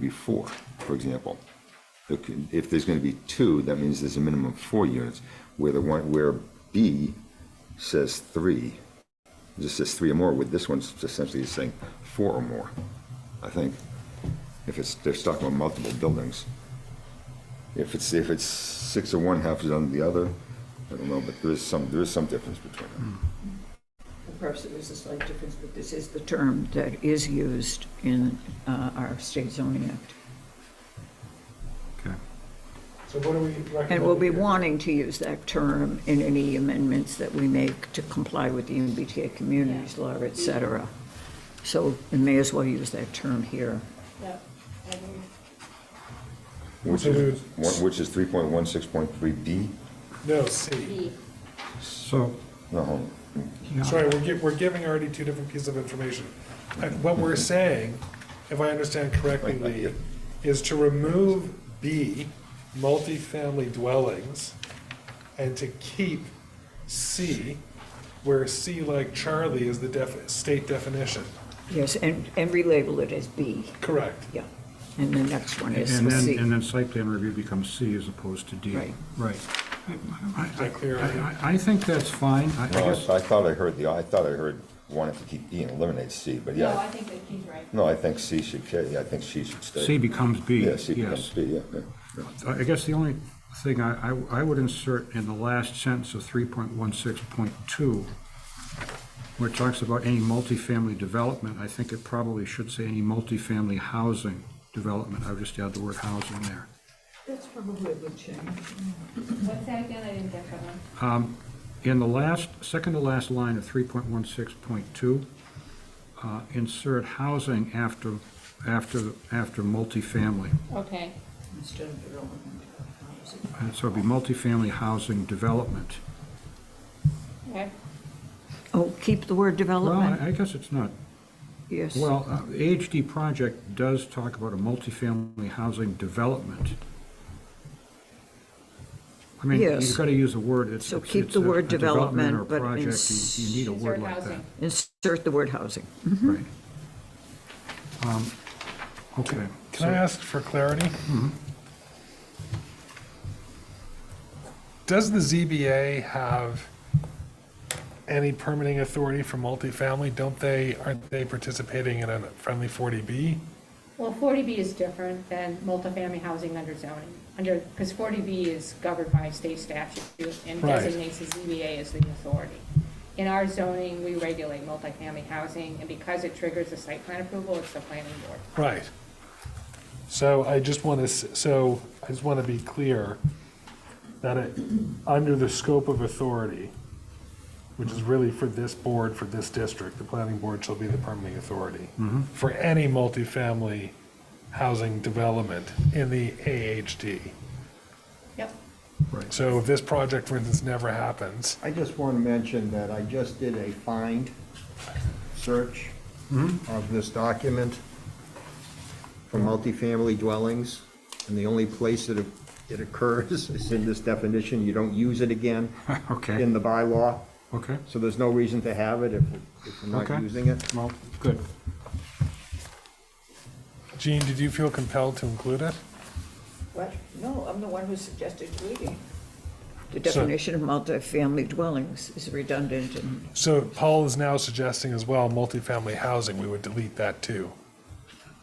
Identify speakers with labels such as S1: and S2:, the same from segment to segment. S1: be four, for example. There could- If there's gonna be two, that means there's a minimum of four units, where the one, where B says three, it just says three or more, with this one's essentially saying four or more, I think. If it's, they're talking about multiple buildings. If it's, if it's six or one, half is on the other, I don't know, but there is some, there is some difference between them.
S2: Perhaps there is a slight difference, but this is the term that is used in uh, our state zoning act.
S3: Okay.
S4: So what do we recommend?
S2: And we'll be wanting to use that term in any amendments that we make to comply with the MBTA communities law, et cetera. So we may as well use that term here.
S5: Yep, I agree.
S1: Which
S4: So we
S1: is,
S4: would-
S1: one- which is three point one, six point three D?
S4: No, C.
S5: B,
S3: So,
S1: No, hold on.
S3: yeah.
S4: Sorry, we're gi, we're giving already two different pieces of information. Uh, What we're saying, if I understand correctly, Lee, is to remove B, multifamily dwellings, and to keep C, where C like Charlie is the def, state definition.
S2: Yes, and, and relabel it as B,
S4: Correct.
S2: yeah. And the next one is
S3: And then, and
S2: C.
S3: then site plan review becomes C as opposed to D.
S2: Right.
S3: Right. I- I-
S4: that clear?
S3: I- I I think that's fine. I I
S1: No,
S3: guess,
S1: I I thought I heard the, I thought I heard wanted to keep E and eliminate C, but
S5: no, I
S1: yeah.
S5: think that he's right.
S1: No, I think C should, ca- yeah, I think C should stay.
S3: C becomes B,
S1: Yeah,
S3: yes.
S1: C becomes B, yeah, yeah.
S3: I I guess the only thing I, I I would insert in the last sentence of 3.16.2, where it talks about any multifamily development, I think it probably should say any multifamily housing development. I would just add the word housing there.
S2: That's probably a good change.
S5: What's that again? I didn't get that one.
S3: In the last, second to last line of 3.16.2, uh, insert housing after, after, after multifamily.
S5: Okay.
S2: Instead of development. uh,
S3: And so it'd be multifamily housing development.
S5: Okay.
S2: Oh, keep the word
S3: Well,
S2: development,
S3: I I guess it's not
S2: yes.
S3: Well, uh, the AHD project does talk about a multifamily housing development. I mean,
S2: Yes.
S3: you've got to use a word, it's.
S2: So
S3: it's-
S2: keep
S3: it's
S2: the
S3: a-
S2: word
S3: a development or
S2: development, but
S3: project,
S2: ins-
S3: You you need a word
S5: Insert
S3: like that.
S5: housing.
S2: Insert the word housing.
S3: Right. Um, Okay.
S4: Can I ask for clarity? Does the ZBA have any permitting authority for multifamily? Don't they, aren't they participating in a friendly 40B?
S5: Well, 40B is different than multifamily housing under zoning, under, because 40B is governed by state statute and
S4: Right.
S5: designates the ZBA as the authority. In our zoning, we regulate multifamily housing, and because it triggers a site plan approval, it's the planning board.
S4: Right. So I just want to, so I just want to be clear that it, under the scope of authority, which is really for this board, for this district, the planning board shall be the permitting authority for any multifamily housing development in the AHD.
S5: Yep.
S3: Right.
S4: So if this project, for instance, never happens,
S6: I just want to mention that I just did a find search of this document for multifamily dwellings, and the only place that it occurs is in this definition. You don't use it again
S3: Okay,
S6: in the bylaw,
S3: okay,
S6: so there's no reason to have it if if we're
S3: Okay.
S6: not using it.
S3: well, good.
S4: Gene, did you feel compelled to include it?
S2: What? No, I'm the one who suggested deleting. The
S4: So-
S2: definition of multifamily dwellings is redundant and
S4: So Paul is now suggesting as well, multifamily housing, we would delete that too.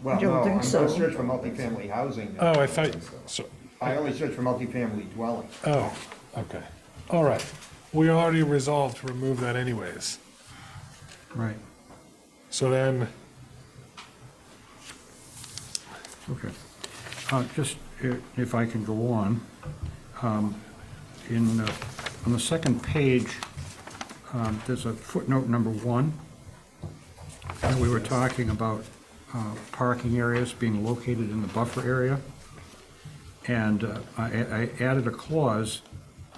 S6: Well,
S2: I don't
S6: no,
S2: think
S6: I'm going
S2: so.
S6: to search for multifamily housing.
S4: Oh, I thought, so,
S6: I only search for multifamily dwelling.
S4: Oh, okay. All right. We already resolved to remove that anyways.
S3: Right,
S4: So then,
S3: okay. Uh, Just i- if I can go on, um, in, uh, on the second page, um, there's a footnote number one. And we were talking about uh, parking areas being located in the buffer area. And uh, I I added a clause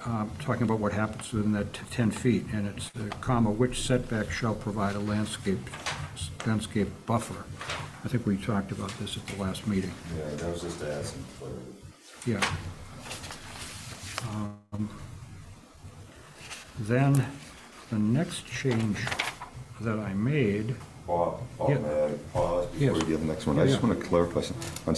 S3: uh, talking about what happens within that t- 10 feet, and it's uh, comma, which setback shall provide a landscape, landscape buffer. I think we talked about this at the last meeting.
S1: Yeah, that was just asking for.
S3: Yeah. Um, Then, the next change that I made
S1: Bob, Bob,
S3: Yeah.
S1: may I pause before
S3: Yes.
S1: uh, you do the next one?
S3: Yeah,
S1: I just
S3: yeah.
S1: want to clarify something. On